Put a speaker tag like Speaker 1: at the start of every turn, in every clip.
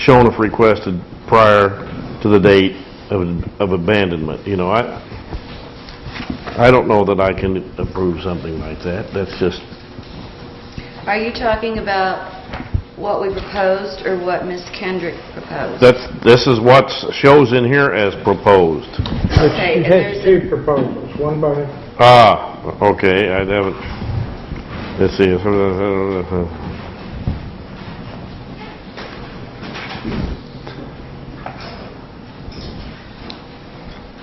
Speaker 1: shown if requested prior to the date of of abandonment. You know, I, I don't know that I can approve something like that. That's just,
Speaker 2: Are you talking about what we proposed or what Ms. Kendrick proposed?
Speaker 1: that's, this is what shows in here as proposed.
Speaker 2: Okay,
Speaker 3: She
Speaker 2: and
Speaker 3: had
Speaker 2: there's
Speaker 3: two proposals, one by,
Speaker 1: Ah, okay, I haven't, let's see.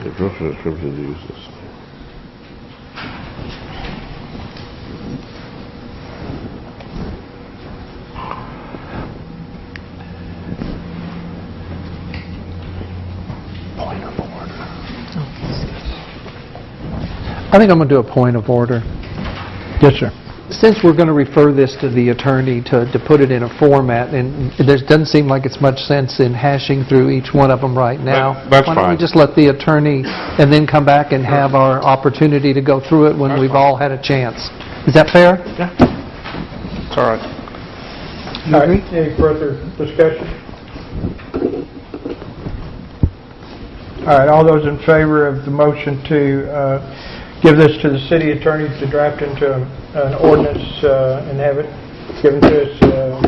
Speaker 1: The grocery description uses.
Speaker 4: I think I'm going to do a point of order. Yes, sir. Since we're going to refer this to the attorney to, to put it in a format, and there doesn't seem like it's much sense in hashing through each one of them right now.
Speaker 1: That- that's
Speaker 4: Why don't we
Speaker 1: fine.
Speaker 4: just let the attorney, and then come back and have our opportunity to go through it when we've all had a chance? Is that fair?
Speaker 1: It's all right.
Speaker 3: All right, any further discussion? All right, all those in favor of the motion to uh, give this to the city attorney to draft into an ordinance uh, and have it given to us uh,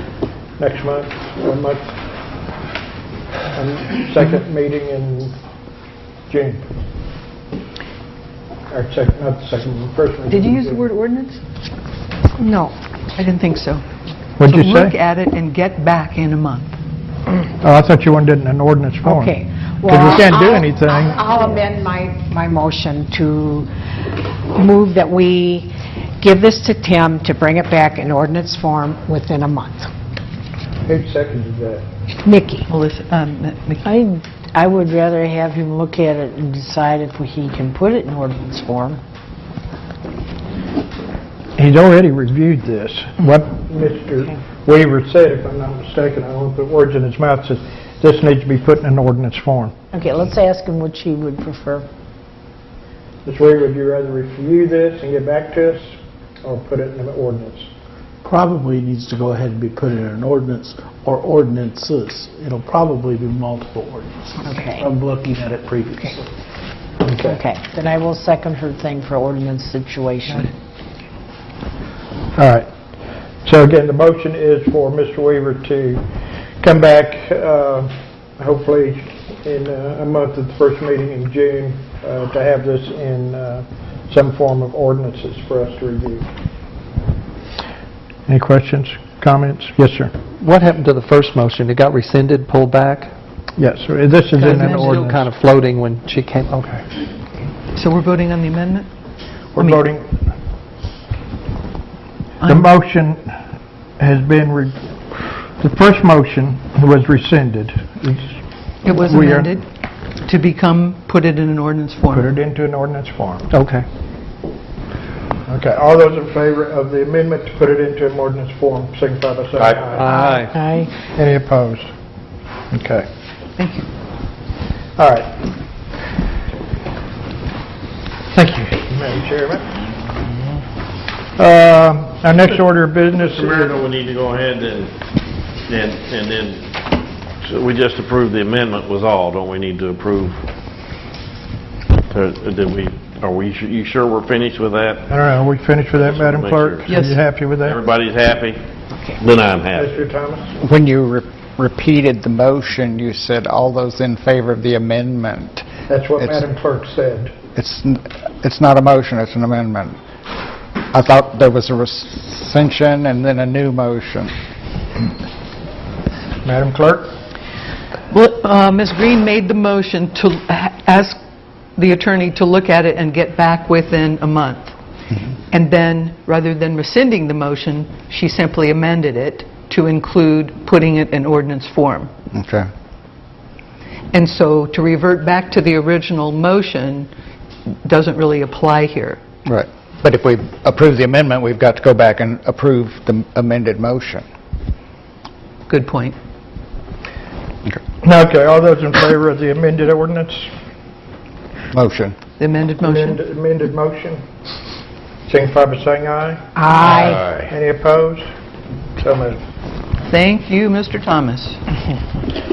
Speaker 3: next month, one month, um, second meeting in June. Or second, not the second, first meeting.
Speaker 5: Did you use the
Speaker 3: in
Speaker 5: word ordinance? No, I didn't think so.
Speaker 3: June. What'd you
Speaker 5: Look
Speaker 3: say?
Speaker 5: at it and get back in a month.
Speaker 3: Oh, I thought you wanted it in an ordinance form.
Speaker 6: Okay.
Speaker 3: Oh, Because we can't do
Speaker 6: Well, I'll-
Speaker 3: anything.
Speaker 6: I'll I'll amend my, my motion to move that we give this to Tim to bring it back in ordinance form within a month.
Speaker 3: Who seconded that?
Speaker 6: Nikki?
Speaker 5: Melissa, um, Mc-
Speaker 7: I, I would rather have him look at it and decide if he can put it in ordinance form.
Speaker 3: He's already reviewed this. What Mr. Weaver said, if I'm not mistaken, I won't put words in his mouth, says this needs to be put in an ordinance form.
Speaker 7: Okay, let's ask him which he would prefer.
Speaker 3: Mr. Weaver, would you rather review this and get back to us, or put it in an ordinance?
Speaker 8: probably needs to go ahead and be put in an ordinance or ordinances. It'll probably be multiple ordinances.
Speaker 7: Okay.
Speaker 8: I'm looking at it previously.
Speaker 7: Okay, then I will second her thing for ordinance situation.
Speaker 3: All right. So again, the motion is for Mr. Weaver to come back, uh, hopefully in uh, a month at the first meeting in June, uh, to have this in uh, some form of ordinances for us to review. Any questions, comments? Yes, sir.
Speaker 4: What happened to the first motion? It got rescinded, pulled back?
Speaker 3: Yes, sir. This is in an
Speaker 5: Amended.
Speaker 4: Still kind
Speaker 3: ordinance.
Speaker 4: of floating when she came, okay.
Speaker 5: So we're voting on the amendment?
Speaker 3: We're voting. The
Speaker 5: I'm-
Speaker 3: motion has been, re- the first motion was rescinded. It's-
Speaker 5: It was
Speaker 3: We are-
Speaker 5: amended to become, put it in an ordinance
Speaker 3: Put
Speaker 5: form.
Speaker 3: it into an ordinance form.
Speaker 4: Okay.
Speaker 3: Okay, all those in favor of the amendment to put it into an ordinance form, signify by saying aye.
Speaker 4: Aye.
Speaker 7: Aye.
Speaker 3: Any opposed? Okay.
Speaker 5: Thank you.
Speaker 3: All right. Thank you. Madam Chairman. Um, Our next order of business
Speaker 1: Mr.
Speaker 3: is...
Speaker 1: Mayor, we need to go ahead and, and, and then, so we just approved the amendment was all, don't we need to approve? Uh, Did we, are we, you sure we're finished with that?
Speaker 3: I don't know, are we finished with that, Madam
Speaker 1: Make
Speaker 3: Clerk?
Speaker 1: sure.
Speaker 3: Are you
Speaker 5: Yes.
Speaker 3: happy with that?
Speaker 1: Everybody's happy? Then I'm happy.
Speaker 3: Mr. Thomas?
Speaker 9: When you re- repeated the motion, you said, "All those in favor of the amendment."
Speaker 3: That's what
Speaker 9: It's-
Speaker 3: Madam Clerk said.
Speaker 9: It's n- it's not a motion, it's an amendment. I thought there was a rescission and then a new motion.
Speaker 3: Madam Clerk?
Speaker 5: Well, uh, Ms. Green made the motion to ha- ask the attorney to look at it and get back within a month.
Speaker 3: Mm-hmm.
Speaker 5: And then, rather than rescinding the motion, she simply amended it to include putting it in ordinance form.
Speaker 9: Okay.
Speaker 5: And so to revert back to the original motion doesn't really apply here.
Speaker 9: Right. But if we approve the amendment, we've got to go back and approve the amended motion.
Speaker 5: Good point.
Speaker 3: Okay, all those in favor of the amended ordinance,
Speaker 9: Motion.
Speaker 5: The amended
Speaker 3: amend-
Speaker 5: motion.
Speaker 3: amended motion, signify by saying aye.
Speaker 6: Aye.
Speaker 3: Any opposed? So moved.
Speaker 5: Thank you, Mr. Thomas.